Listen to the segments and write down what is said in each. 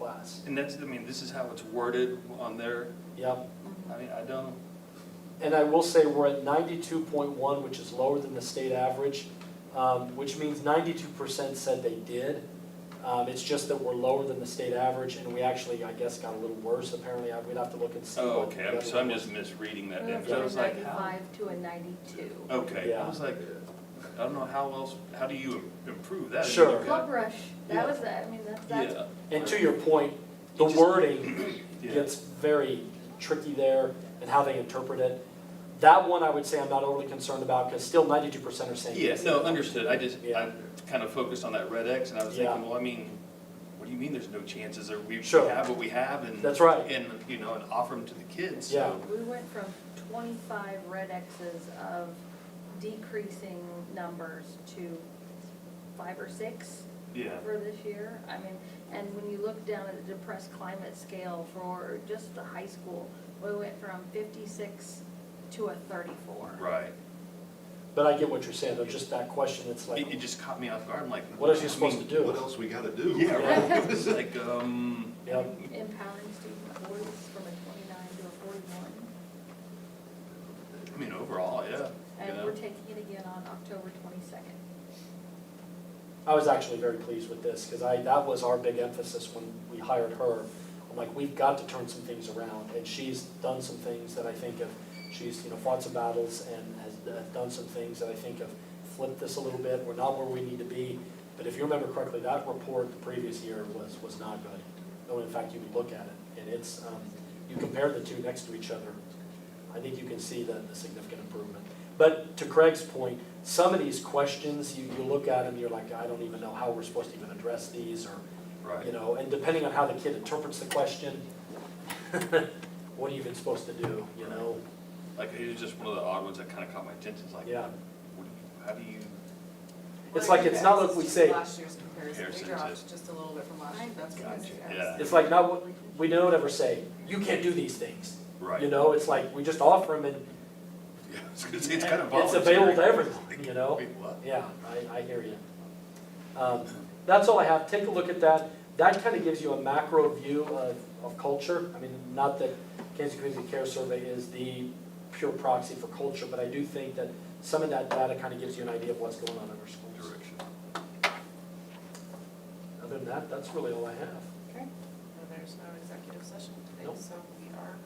that's, and that's, I mean, this is how it's worded on there, Yep, I mean, I don't, and I will say we're at ninety-two point one, which is lower than the state average, um, which means ninety-two percent said they did. Um, it's just that we're lower than the state average, and we actually, I guess, got a little worse apparently, I, we'd have to look and see. oh, what okay, the I'm- other so I'm one just misreading that Moved damage, from I a was like, how? ninety-five to a ninety-two. Okay, I Yeah. was like, I don't know how else, how do you im- improve that? I mean, Sure. you've got- Club Rush, Yeah. that was, the- I mean, that's, that's Yeah, was. And to your point, the wording yeah, gets very tricky there and how they interpret it. That one I would say I'm not overly concerned about, because still ninety-two percent are saying yeah, yes. no, understood, I just, Yeah. I kind of focused on that red X, and I was Yeah. thinking, well, I mean, what do you mean there's no chances, or we we Sure. have what we have, and. That's right. And, you know, and offer them to the kids, Yeah. so, We went from twenty-five red X's of decreasing numbers to five or six yeah, for this year. I mean, and when you look down at the depressed climate scale for just the high school, we went from fifty-six to a thirty-four. right. But I get what you're saying, though, just that question, it's It, it like, just caught me off guard, I'm like. what else are you supposed to mean, do? What else we gotta do? Yeah, right, it's like, um, Yep. Empowering student boards from a twenty-nine to a forty-one. I mean, overall, yeah. And yeah. we're taking it again on October twenty-second. I was actually very pleased with this, because I, that was our big emphasis when we hired her. I'm like, we've got to turn some things around, and she's done some things that I think of, she's, you know, fought some battles and has uh, done some things that I think have flipped this a little bit, we're not where we need to be. But if you remember correctly, that report the previous year was, was not good. No, in fact, you would look at it, and it's, um, you compare the two next to each other, I think you can see the, the significant improvement. But to Craig's point, some of these questions, you, you look at them, you're like, I don't even know how we're supposed to even address these, or, you Right, know, and depending on how the kid interprets the question, what are you even supposed to do, you know? like, it was just one of the odd ones that kind of caught my attention, it's like, Yeah. what do you- how do you, It's like, it's not like we say, Last year's comparison, they Comparison dropped to- just a little bit from last year, that's because Gotcha, yeah. yeah. it's like, not, what- we don't ever say, you can't do these things. You right? know, it's like, we just offer them and Yeah, I was gonna say, it's kind of it's voluntary. available to everyone, you know? Wait, what? Yeah, I, I hear you. Um, That's all I have, take a look at that, that kind of gives you a macro view of, of culture. I mean, not that Kansas Community Care Survey is the pure proxy for culture, but I do think that some of that data kind of gives you an idea of what's going on in our schools. Direction. Other than that, that's really all I have. Okay, and there's no executive session today, Nope. so we are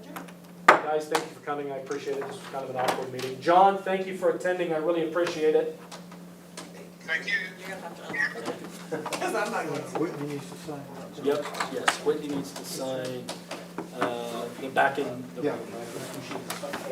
adjourned. Guys, thank you for coming, I appreciate it, this was kind of an awkward meeting. John, thank you for attending, I really appreciate it. You're gonna have to unlock it. Whitney needs to sign up. Yep, yes, Whitney needs to sign, uh, the back end, the Yeah. I appreciate it.